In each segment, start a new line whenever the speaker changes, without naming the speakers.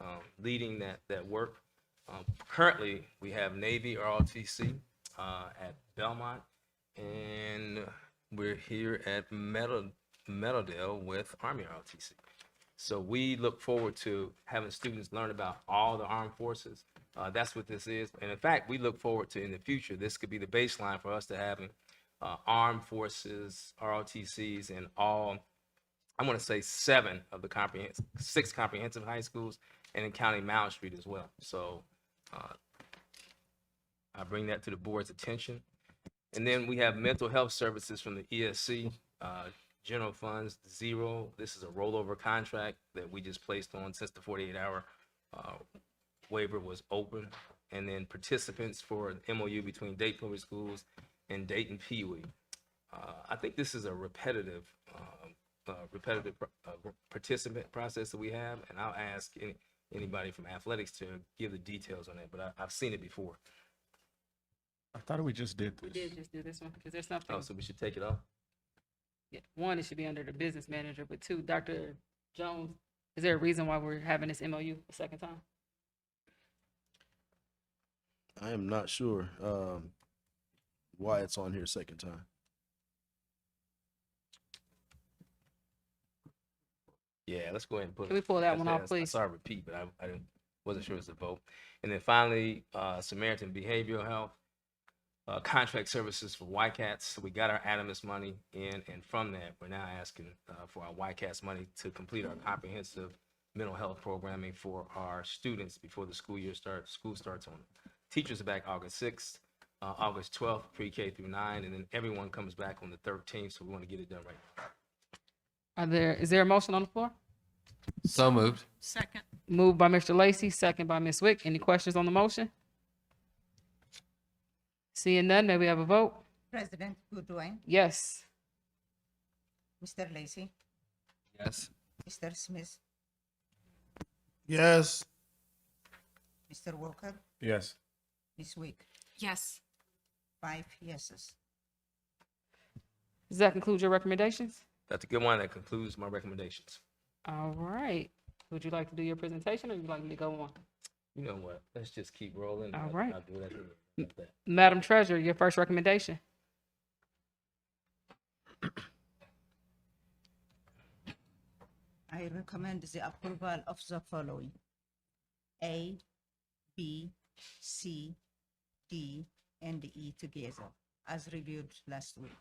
um, leading that, that work. Um, Currently, we have Navy ROTC uh, at Belmont, and we're here at Meadow- Meadowdale with Army ROTC. So we look forward to having students learn about all the armed forces. Uh, that's what this is. And in fact, we look forward to in the future, this could be the baseline for us to having uh, armed forces, ROTCs, and all, I want to say seven of the comprehensive, six comprehensive high schools, and in County Mound Street as well. So uh, I bring that to the board's attention. And then we have mental health services from the ESC, uh, general funds, zero. This is a rollover contract that we just placed on since the forty-eight hour, uh, waiver was open. And then participants for an MOU between Dayton Public Schools and Dayton Pee Wee. Uh, I think this is a repetitive, um, uh, repetitive, uh, participant process that we have, and I'll ask any, anybody from athletics to give the details on that, but I, I've seen it before.
I thought we just did
We
this.
did just do this one, because there's
Oh,
something,
so we should take it off?
yeah, one, it should be under the business manager, but two, Dr. Jones, is there a reason why we're having this MOU a second time?
I am not sure um, why it's on here second time.
Yeah, let's go ahead and put.
Can we pull that one off,
Yes, I
please?
saw a repeat, but I, I didn't, wasn't sure it was a vote. And then finally, uh, Samaritan Behavioral Health, uh, contract services for YCATs. So we got our Adamus money in, and from that, we're now asking, uh, for our YCATs money to complete our comprehensive mental health programming for our students before the school year starts, school starts on. Teachers are back August sixth, uh, August twelfth, pre-K through nine, and then everyone comes back on the thirteenth, so we want to get it done right.
Are there, is there a motion on the floor?
So moved.
Second.
Moved by Mr. Lacy, second by Ms. Wick. Any questions on the motion? Seeing none, may we have a vote?
President Goodwin,
Yes.
Mr. Lacy,
Yes.
Mr. Smith,
Yes.
Mr. Walker,
Yes.
Ms. Wick,
Yes.
five yeses.
Does that conclude your recommendations?
That's a good one. That concludes my recommendations.
All right. Would you like to do your presentation or would you like me to go on?
You know what? Let's just keep rolling.
All
I'll-
right.
I'll do what I can about that.
Madam Treasurer, your first recommendation.
I recommend the approval of the following. A, B, C, D, and E together as reviewed last week.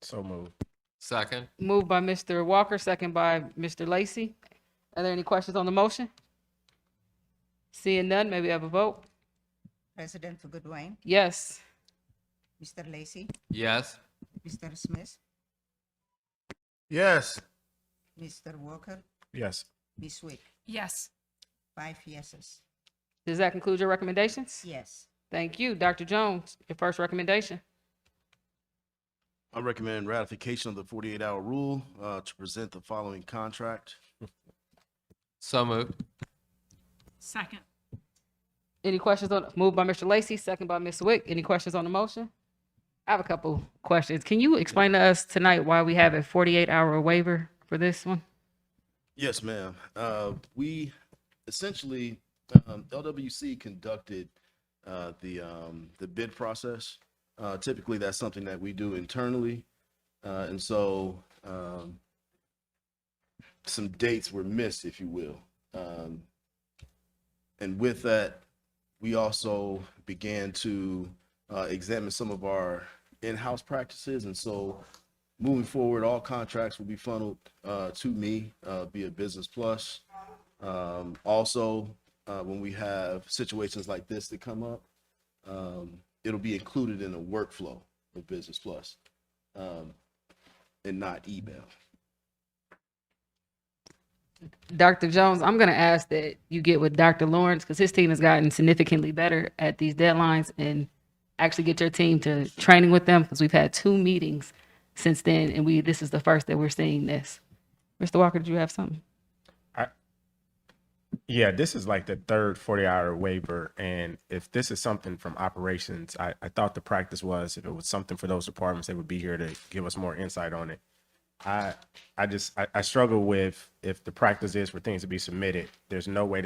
So moved.
Second.
Moved by Mr. Walker, second by Mr. Lacy. Are there any questions on the motion? Seeing none, may we have a vote?
President Goodwin,
Yes.
Mr. Lacy,
Yes.
Mr. Smith,
Yes.
Mr. Walker,
Yes.
Ms. Wick,
Yes.
five yeses.
Does that conclude your recommendations?
Yes.
Thank you. Dr. Jones, your first recommendation.
I recommend ratification of the 48 hour rule uh, to present the following contract.
So moved.
Second.
Any questions on, moved by Mr. Lacy, second by Ms. Wick. Any questions on the motion? I have a couple questions. Can you explain to us tonight why we have a forty-eight hour waiver for this one?
Yes, ma'am. Uh, we essentially, um, LWC conducted uh, the um, the bid process. Uh, typically, that's something that we do internally, uh, and so um, some dates were missed, if you will. Um, and with that, we also began to uh, examine some of our in-house practices, and so moving forward, all contracts will be funneled uh, to me uh, via Business Plus. Um, also, uh, when we have situations like this that come up, um, it'll be included in the workflow of Business Plus, um, and not email.
Dr. Jones, I'm going to ask that you get with Dr. Lawrence because his team has gotten significantly better at these deadlines and actually get your team to training with them because we've had two meetings since then and we this is the first that we're seeing this. Mr. Walker, did you have something?
Yeah, this is like the third 40 hour waiver. And if this is something from operations, I, I thought the practice was if it was something for those departments, they would be here to give us more insight on it. I I just I, I struggle with if the practice is for things to be submitted, there's no way